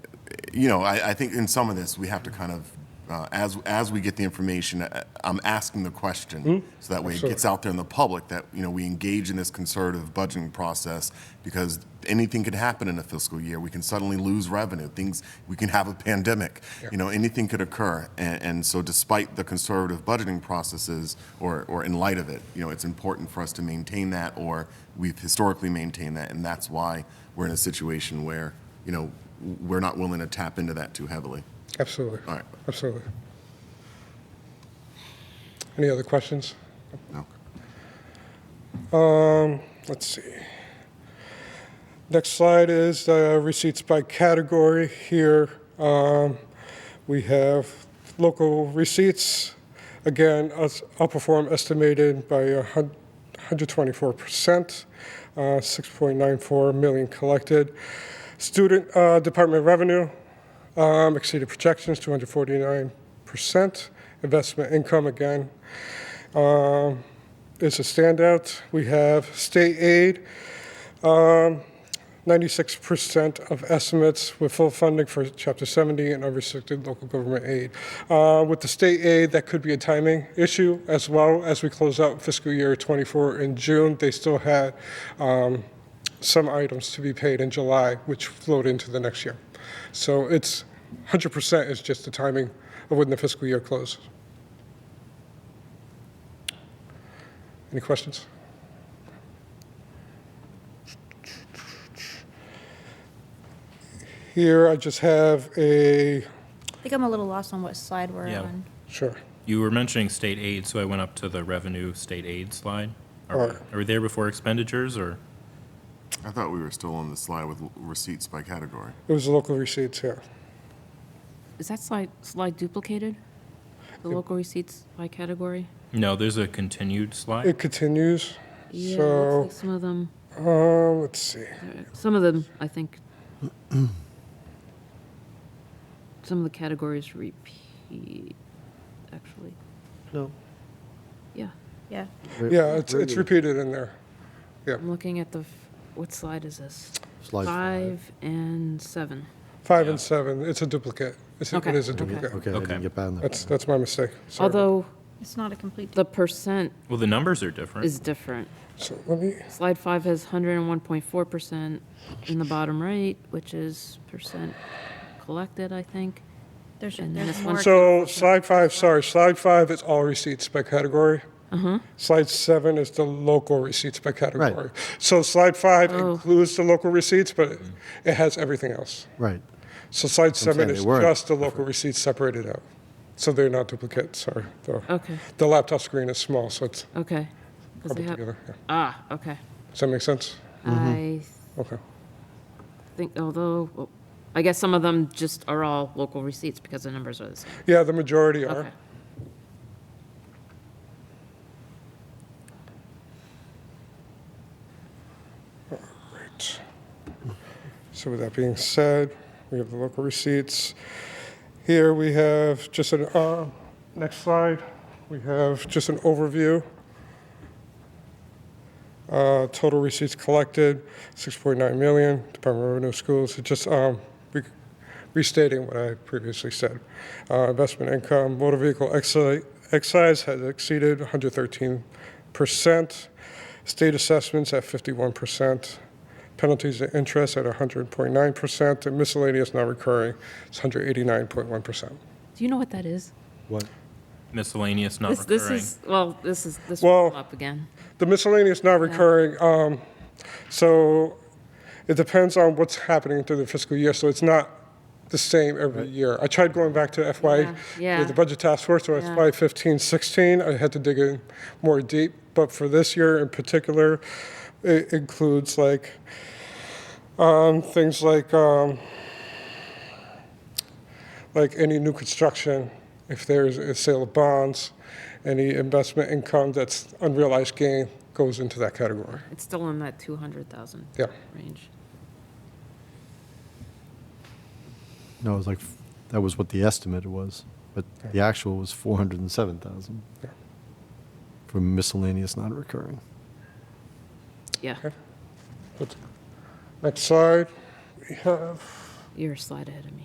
you know, I, I think in some of this, we have to kind of, uh, as, as we get the information, I- I'm asking the question, so that way it gets out there in the public, that, you know, we engage in this conservative budgeting process, because anything could happen in a fiscal year. We can suddenly lose revenue, things, we can have a pandemic, you know, anything could occur. And, and so despite the conservative budgeting processes, or, or in light of it, you know, it's important for us to maintain that, or we've historically maintained that, and that's why we're in a situation where, you know, we're not willing to tap into that too heavily. Absolutely. All right. Absolutely. Any other questions? No. Let's see. Next slide is uh, receipts by category. Here um, we have local receipts. Again, us- outperform estimated by a hun- 124%, uh, 6.94 million collected. Student uh, department revenue um, exceeded projections, 249%. Investment income again is a standout. We have state aid, um, 96% of estimates with full funding for Chapter 70 and unrestricted local government aid. Uh, with the state aid, that could be a timing issue as well. As we close out fiscal year 24 in June, they still had um, some items to be paid in July, which flowed into the next year. So it's 100% is just the timing of when the fiscal year closes. Any questions? Here, I just have a, I think I'm a little lost on what slide we're Yeah. on. sure, You were mentioning state aid, so I went up to the revenue state aid slide. Are, Alright. we- are we there before expenditures or? I thought we were still on the slide with receipts by category. it was the local receipts here. Is that slide, slide duplicated? The local receipts by category? No, there's a continued slide. It continues, Yeah, So- looks like Some of them, uh, let's see, some of them, I think, some of the categories repeat, actually. No. Yeah, Yeah. wait, yeah, it's, it's wait, repeated in there. I'm looking at the, f- what slide is this? Slide five. Five and seven. Five Yeah. and seven, it's a duplicate, it's, a- Okay, it is a okay. duplicate. Okay, I Okay. didn't get down there. That's, that's my mistake, sorry. Although It's not a complete. the percent Well, the numbers are different. is different. So let me, Slide five has 101.4% in the bottom right, which is percent collected, I think. There's, And there's this one- more. so slide five, sorry, slide five is all receipts by category. Uh-huh. Slide seven is the local receipts by category. So slide five Oh. includes the local receipts, but it has everything else. Right. So slide saying seven they is weren't just the local receipts separated out. So they're not duplicates, sorry. The- Okay, The laptop screen is small, so it's okay. 'Cause they coupled have- together. Mm-hmm. yeah. Ah, okay. Does that make sense? I Okay. think, although, well, I guess some of them just are all local receipts because the numbers are the same. Yeah, the majority are. Okay. Right. So with that being said, we have the local receipts. Here we have just an, uh, next slide, we have just an overview. Uh, Total receipts collected, 6.9 million, Department of Revenue Schools, It just um, re- restating what I previously said. Uh, Investment income, motor vehicle exci- excise has exceeded 113%, state assessments at 51%, penalties and interest at 100.9%, and miscellaneous non-recurring is 189.1%. Do you know what that is? What? Miscellaneous, not This, this recurring. is, well, this is, this Well- will come up again. The miscellaneous non-recurring, um, so it depends on what's happening through the fiscal year, so it's not the same every year. I tried going back to FY, Yeah, yeah. the budget task force, so Yeah. FY 15, 16, I had to dig in more deep, but for this year in particular, it includes like, um, things like, um, like any new construction, if there's a sale of bonds, any investment income that's unrealized gain goes into that category. It's still in that 200,000 Yeah. range. No, it was like, f- that was what the estimate was, but the actual was 407,000 Yeah. for miscellaneous non-recurring. Yeah, Next slide, we have you're a slide ahead of me.